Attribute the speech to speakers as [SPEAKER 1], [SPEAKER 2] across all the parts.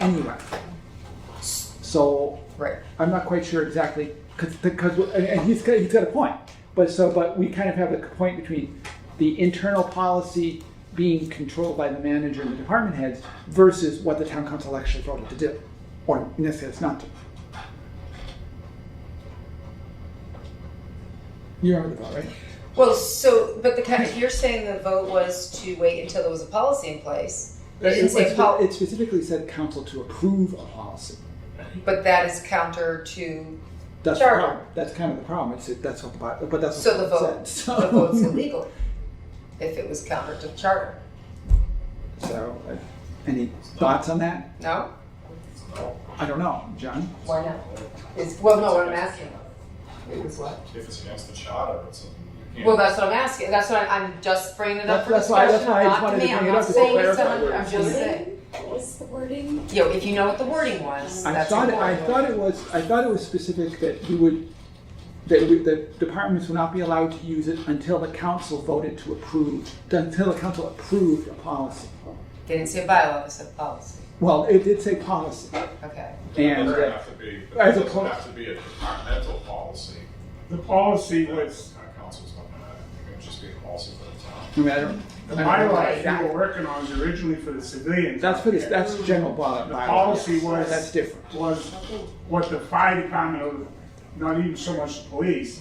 [SPEAKER 1] anywhere. So
[SPEAKER 2] Right.
[SPEAKER 1] I'm not quite sure exactly because because and, and he's got, he's got a point. But so but we kind of have a point between the internal policy being controlled by the manager and the department heads versus what the town council actually voted to do, or in this case, not to. You remember the vote, right?
[SPEAKER 2] Well, so, but the kind of, you're saying the vote was to wait until there was a policy in place. You
[SPEAKER 1] It,
[SPEAKER 2] didn't say
[SPEAKER 1] it-
[SPEAKER 2] pol-
[SPEAKER 1] it specifically said council to approve a policy.
[SPEAKER 2] but that is counter to,
[SPEAKER 1] That's the
[SPEAKER 2] Sure.
[SPEAKER 1] problem. That's kind of the problem. It's that's what the bi- but that's what
[SPEAKER 2] so the
[SPEAKER 1] it
[SPEAKER 2] vote,
[SPEAKER 1] said. So-
[SPEAKER 2] the vote's illegal. If it was counter to charter,
[SPEAKER 1] So, uh, any thoughts on that?
[SPEAKER 2] no?
[SPEAKER 1] I don't know, John.
[SPEAKER 2] Why not? It's, well, no, what I'm asking. It was what?
[SPEAKER 3] If it's against the charter, it's, you
[SPEAKER 2] Well,
[SPEAKER 3] can't,
[SPEAKER 2] that's what I'm asking, that's what I'm, I'm just bringing it
[SPEAKER 1] That's,
[SPEAKER 2] up for
[SPEAKER 1] that's why,
[SPEAKER 2] discussion,
[SPEAKER 1] that's why I just
[SPEAKER 2] not to
[SPEAKER 1] wanted
[SPEAKER 2] me,
[SPEAKER 1] to
[SPEAKER 2] I'm
[SPEAKER 1] bring it
[SPEAKER 2] not
[SPEAKER 1] up to
[SPEAKER 2] saying it's
[SPEAKER 1] clarify.
[SPEAKER 2] someone,
[SPEAKER 1] where
[SPEAKER 2] I'm
[SPEAKER 1] it's
[SPEAKER 2] just
[SPEAKER 1] coming from.
[SPEAKER 2] saying.
[SPEAKER 4] What was the wording?
[SPEAKER 2] You know, if you know what the wording was,
[SPEAKER 1] I
[SPEAKER 2] that's
[SPEAKER 1] thought, it- I
[SPEAKER 2] important.
[SPEAKER 1] thought it was, I thought it was specific that you would, that we- the departments would not be allowed to use it until the council voted to approve, until the council approved a policy.
[SPEAKER 2] They didn't say bylaw, they said policy,
[SPEAKER 1] Well, it did say policy,
[SPEAKER 2] okay.
[SPEAKER 1] and,
[SPEAKER 3] doesn't
[SPEAKER 1] uh,
[SPEAKER 3] have to be, it
[SPEAKER 1] as a
[SPEAKER 3] doesn't
[SPEAKER 1] pol-
[SPEAKER 3] have to be a departmental policy.
[SPEAKER 5] The policy was,
[SPEAKER 3] Our council's not gonna, it would just be a policy for the town.
[SPEAKER 1] I mean, I don't.
[SPEAKER 5] the
[SPEAKER 1] I don't know
[SPEAKER 5] bylaw you
[SPEAKER 1] exactly.
[SPEAKER 5] were working on was originally for the civilians.
[SPEAKER 1] That's for this, that's general bylaw.
[SPEAKER 5] The policy
[SPEAKER 1] yes.
[SPEAKER 5] was-
[SPEAKER 1] That's different.
[SPEAKER 5] Was what the fire department, or not even so much the police,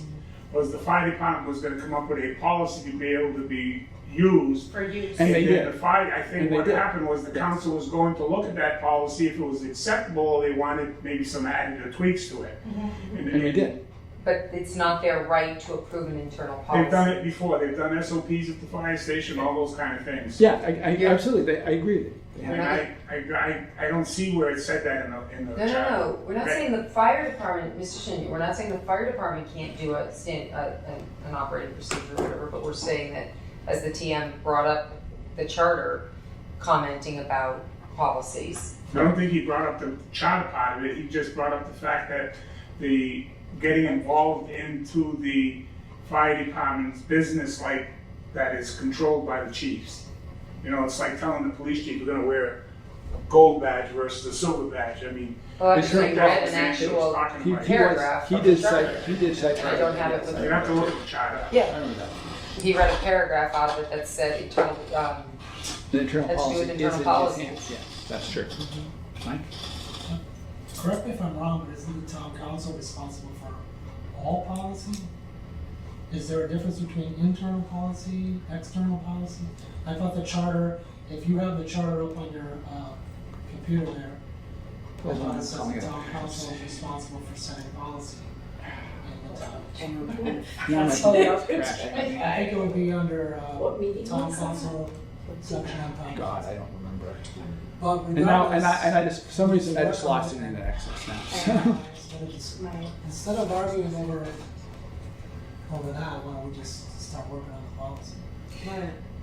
[SPEAKER 5] was the fire department was gonna come up with a policy to be able to be used.
[SPEAKER 6] for use.
[SPEAKER 1] And they
[SPEAKER 5] then
[SPEAKER 1] did.
[SPEAKER 5] the fire, I
[SPEAKER 1] And
[SPEAKER 5] think
[SPEAKER 1] they
[SPEAKER 5] what
[SPEAKER 1] did.
[SPEAKER 5] happened was the
[SPEAKER 1] Yes.
[SPEAKER 5] council was going to look at that policy, if it was acceptable, or they wanted maybe some added or tweaks to it.
[SPEAKER 1] Mm-hmm. And they did.
[SPEAKER 2] But it's not their right to approve an internal policy.
[SPEAKER 5] They've done it before, they've done SOPs at the fire station, all those kind of things.
[SPEAKER 1] Yeah, I, I, absolutely, They- I agree. with you. They
[SPEAKER 5] And
[SPEAKER 1] have-
[SPEAKER 5] I, I, I, I don't see where it said that in the, in the
[SPEAKER 2] No, no,
[SPEAKER 5] charter.
[SPEAKER 2] no, we're not
[SPEAKER 5] Right.
[SPEAKER 2] saying the fire department, Mr. Shin, we're not saying the fire department can't do a stand, a, an- an operating procedure or whatever, but we're saying that as the TM brought up the charter commenting about policies.
[SPEAKER 5] I don't think he brought up the charter part of it, he just brought up the fact that the, getting involved into the fire department's business like that is controlled by the chiefs. You know, it's like telling the police chief, you're gonna wear a gold badge versus a silver badge, I mean.
[SPEAKER 2] Well, I
[SPEAKER 1] It's
[SPEAKER 2] just read
[SPEAKER 1] not
[SPEAKER 2] an
[SPEAKER 5] that's what
[SPEAKER 2] actual,
[SPEAKER 1] He,
[SPEAKER 5] it's talking about.
[SPEAKER 1] he was,
[SPEAKER 2] Paragraph
[SPEAKER 1] he
[SPEAKER 2] of the
[SPEAKER 1] did cite,
[SPEAKER 2] charter.
[SPEAKER 1] he did cite.
[SPEAKER 2] I don't have it with
[SPEAKER 5] You have to look at the charter.
[SPEAKER 1] I
[SPEAKER 2] yeah,
[SPEAKER 1] don't know.
[SPEAKER 2] he read a paragraph out of it that said internal, um,
[SPEAKER 1] The internal
[SPEAKER 2] That's to do
[SPEAKER 1] policy is
[SPEAKER 2] with
[SPEAKER 1] in
[SPEAKER 2] internal
[SPEAKER 1] his
[SPEAKER 2] policy.
[SPEAKER 1] hands, yeah, that's true.
[SPEAKER 5] Mm-hmm.
[SPEAKER 1] Mike?
[SPEAKER 7] Correct me if I'm wrong, but isn't the town council responsible for all policy? Is there a difference between internal policy, external policy? I thought the charter, if you have the charter up on your, uh, computer there, I thought it says the town council is responsible for setting policy in the town.
[SPEAKER 1] Now my
[SPEAKER 7] So-
[SPEAKER 1] computer's crashing.
[SPEAKER 7] I think it would be under, uh,
[SPEAKER 4] What meeting
[SPEAKER 7] town
[SPEAKER 4] was that?
[SPEAKER 7] council, section on town
[SPEAKER 1] God,
[SPEAKER 7] council.
[SPEAKER 1] I don't remember.
[SPEAKER 7] But
[SPEAKER 1] And now, and I, and
[SPEAKER 7] regardless,
[SPEAKER 1] I just, for some reason, I just lost internet access now.
[SPEAKER 7] instead of just
[SPEAKER 4] My
[SPEAKER 7] Instead of arguing over, over that, why don't we just start working on the policy?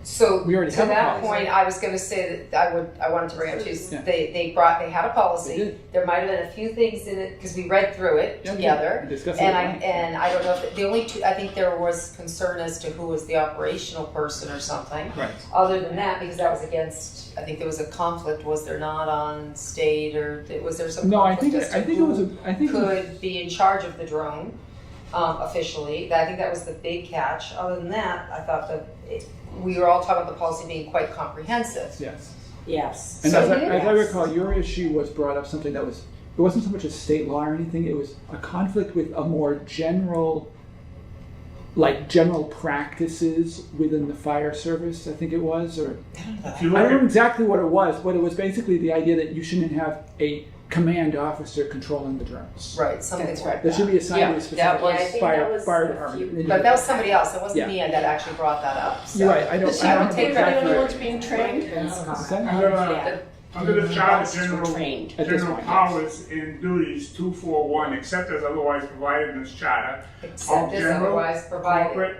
[SPEAKER 2] So
[SPEAKER 1] We already
[SPEAKER 2] to
[SPEAKER 1] have a
[SPEAKER 2] that
[SPEAKER 1] policy.
[SPEAKER 2] point, I was going to say that I would I wanted to bring up too. is
[SPEAKER 1] Yeah.
[SPEAKER 2] They they brought they had a
[SPEAKER 1] They
[SPEAKER 2] policy.
[SPEAKER 1] did.
[SPEAKER 2] There might have been a few things in it because we read through it
[SPEAKER 1] Yeah, we did.
[SPEAKER 2] together.
[SPEAKER 1] We discussed it
[SPEAKER 2] And I
[SPEAKER 1] at length.
[SPEAKER 2] and I don't know if the only two I think there was concern as to who was the operational person or something.
[SPEAKER 1] Right.
[SPEAKER 2] Other than that, because that was against I think there was a conflict. Was there not on state or was there some
[SPEAKER 1] No, I
[SPEAKER 2] conflict
[SPEAKER 1] think,
[SPEAKER 2] as to
[SPEAKER 1] I think it
[SPEAKER 2] who
[SPEAKER 1] was, a. I think, it was-
[SPEAKER 2] could be in charge of the drone um, officially. I think that was the big catch. Other than that, I thought that it, we were all talking about the policy being quite comprehensive.
[SPEAKER 1] yes.
[SPEAKER 4] Yes.
[SPEAKER 1] And
[SPEAKER 2] So
[SPEAKER 1] as I,
[SPEAKER 2] it
[SPEAKER 1] as I
[SPEAKER 2] is.
[SPEAKER 1] recall, your issue was brought up something that was, it wasn't so much a state law or anything, it was a conflict with a more general, like general practices within the fire service, I think it was, or
[SPEAKER 5] If you
[SPEAKER 1] I
[SPEAKER 5] look
[SPEAKER 1] don't
[SPEAKER 5] at
[SPEAKER 1] know exactly what it was, but it was basically the idea that you shouldn't have a command officer controlling the drones.
[SPEAKER 2] Right, something's right.
[SPEAKER 1] That should be assigned to a specific
[SPEAKER 2] that was-
[SPEAKER 4] Yeah, I think that
[SPEAKER 1] fire,
[SPEAKER 4] was
[SPEAKER 1] fire
[SPEAKER 4] a
[SPEAKER 1] department.
[SPEAKER 4] few-
[SPEAKER 1] And
[SPEAKER 2] But
[SPEAKER 1] you-
[SPEAKER 2] that was somebody else. It wasn't
[SPEAKER 1] Yeah.
[SPEAKER 2] me that actually brought that up. So.
[SPEAKER 1] You're right, I don't,
[SPEAKER 2] She
[SPEAKER 1] I
[SPEAKER 2] would
[SPEAKER 1] don't know
[SPEAKER 2] take that
[SPEAKER 1] exactly.
[SPEAKER 2] in
[SPEAKER 1] what-
[SPEAKER 2] Everyone's
[SPEAKER 4] being
[SPEAKER 7] trained.
[SPEAKER 1] Is that-
[SPEAKER 5] Under, uh,
[SPEAKER 4] Yeah.
[SPEAKER 5] under the charter, general,
[SPEAKER 4] Trained.
[SPEAKER 1] At this
[SPEAKER 5] general
[SPEAKER 1] point, yes.
[SPEAKER 5] powers and duties, two four one, except as otherwise provided in this charter, all
[SPEAKER 2] Except as
[SPEAKER 5] general,
[SPEAKER 2] otherwise provided.
[SPEAKER 5] corporate,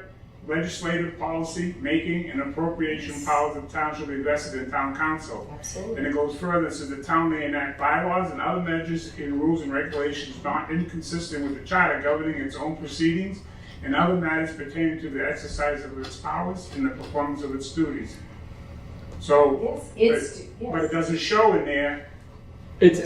[SPEAKER 5] legislative policy, making, and appropriation powers of town shall be vested in town council.
[SPEAKER 2] Absolutely.
[SPEAKER 5] And it goes further, it says the town may enact bylaws and other measures in rules and regulations not inconsistent with the charter governing its own proceedings and other matters pertaining to the exercise of its powers and the performance of its duties. So,
[SPEAKER 2] Yes, it's
[SPEAKER 5] But it doesn't show in there
[SPEAKER 1] It's